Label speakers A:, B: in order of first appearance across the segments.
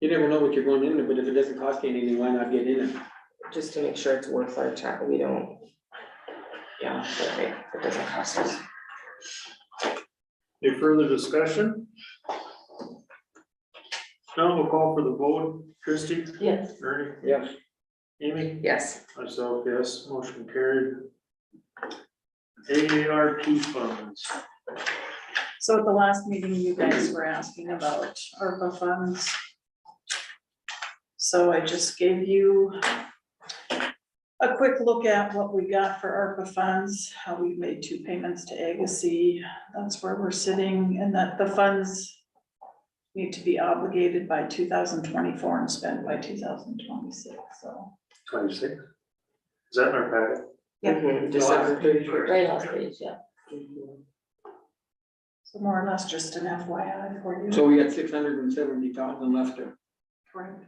A: You never know what you're going into, but if it doesn't cost you anything, why not get in it?
B: just to make sure it's worth our time, we don't. Yeah, but it, it doesn't cost us.
C: Any further discussion? Now we'll call for the vote. Christie,
D: Yes.
C: Ernie,
A: Yeah.
C: Amy,
B: Yes,
C: myself, yes, motion carried. AARP funds.
D: So at the last meeting, you guys were asking about ARPA funds. So I just gave you a quick look at what we got for ARPA funds, how we've made two payments to Agassiz. That's where we're sitting and that the funds need to be obligated by two thousand twenty-four and spent by two thousand twenty-six, so.
C: Twenty-six. Is that in our packet?
B: mhm, December thirty first.
E: Right last page, yeah.
D: So more or less just an FYI for you.
A: So we got six hundred and seventy thousand left to
D: Correct.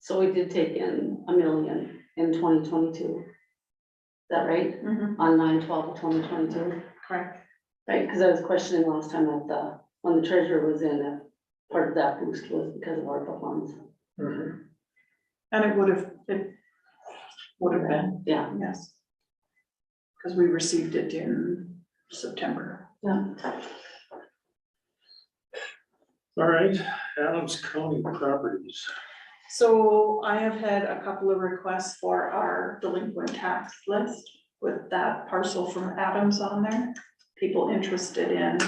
E: So we did take in a million in twenty twenty-two. Is that right?
D: Mhm,
E: On nine twelve of twenty twenty-two,
D: correct.
E: right? Because I was questioning last time at the, when the treasurer was in, if part of that boost was because of ARPA funds.
D: And it would have, it would have been.
E: Yeah,
D: Yes. Because we received it in September.
E: yeah.
C: All right, Adams County Properties.
D: So I have had a couple of requests for our delinquent tax list with that parcel from Adams on there, people interested in.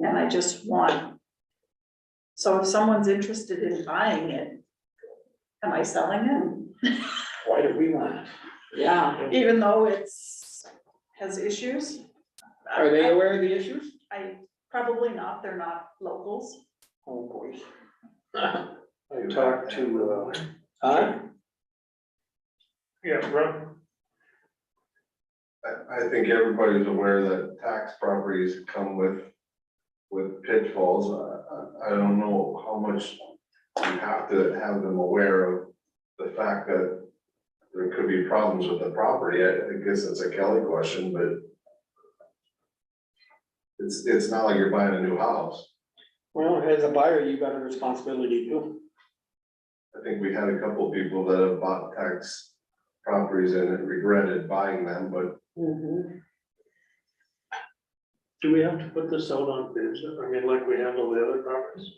D: And I just want. So if someone's interested in buying it, am I selling
A: Why do we want it?
E: Yeah,
D: it? Even though it's, has issues?
A: Are they aware of the issues?
D: I, probably not, they're not locals.
A: Oh, boy.
C: I talked to, uh,
A: Huh?
C: yeah, Rob,
F: I, I think everybody's aware that tax properties come with, with pitfalls. I, I, I don't know how much you have to have them aware of the fact that there could be problems with the property. I, I guess that's a Kelly question, but it's, it's not like you're buying a new house.
A: Well, as a buyer, you got a responsibility too.
F: I think we had a couple of people that have bought tax properties and regretted buying them, but
E: mhm.
C: do we have to put this out on bids? I mean, like we handle the other properties?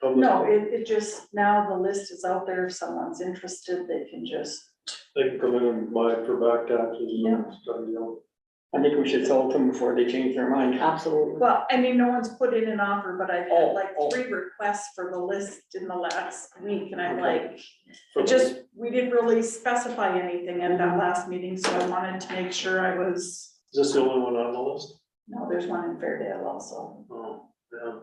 C: Public,
D: No, it, it just, now the list is out there, if someone's interested, they can just,
C: They can come in and buy it for back taxes
D: Yeah.
C: and stuff, you know.
A: I think we should sell it to them before they change their mind.
E: absolutely.
D: well, I mean, no one's put in an offer, but I've
A: Oh,
D: had like
A: oh.
D: three requests for the list in the last week, and I'm
A: Okay.
D: like, it just, we didn't really specify anything at that last meeting, so I wanted to make sure I was,
C: Is this the only one on the list?
D: no, there's one in Fairdale also.
C: Oh, yeah.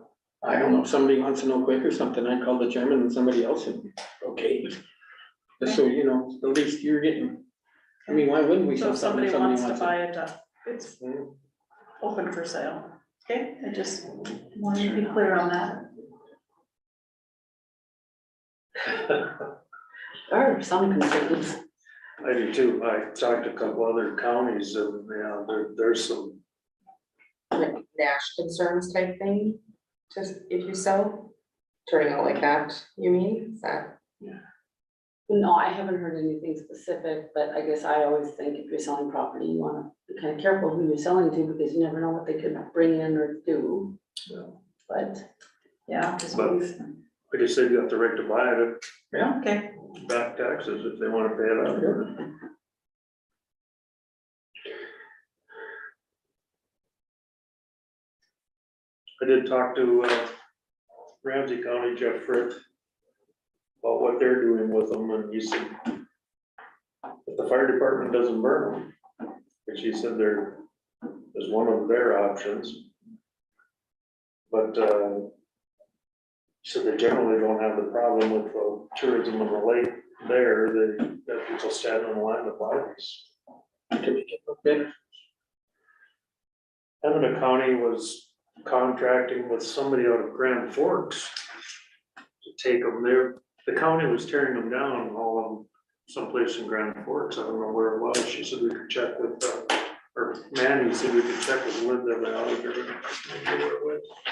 A: I don't know, if somebody wants to know quick or something, I call the chairman and somebody else and, okay. Just so you know, at least you're getting, I mean, why wouldn't we
D: So
A: sell
D: if
A: something
D: somebody
A: if
D: wants to buy it, uh, it's
A: buy.
D: open for sale, okay? I just wanted to be clear on that.
E: There are some concerns.
C: I do too. I talked to a couple other counties and, yeah, there, there's some,
B: Like Nash concerns type thing, just if you sell, turning out like that, you mean, is that?
E: No, I haven't heard anything specific, but I guess I always think if you're selling property, you wanna be kind of careful who you're selling to, because you never know what they could bring in or do.
C: Yeah.
E: But,
D: Yeah, just
C: But-
D: please.
C: like I said, you have the right to buy it,
D: okay,
C: back taxes if they wanna pay it out. I did talk to, uh, Ramsey County, Jeff Frith, about what they're doing with them, and he said, if the fire department doesn't burn them, which he said there is one of their options. But, uh, so they generally don't have the problem with the tourism on the lake there, they, that people stand in line to buy these.
A: Okay,
C: Pembina County was contracting with somebody out of Grand Forks to take them there. The county was tearing them down, all of them, someplace in Grand Forks, I don't know where it was. She said we could check with, uh, or Manny said we could check with Linda, but I don't remember where it was.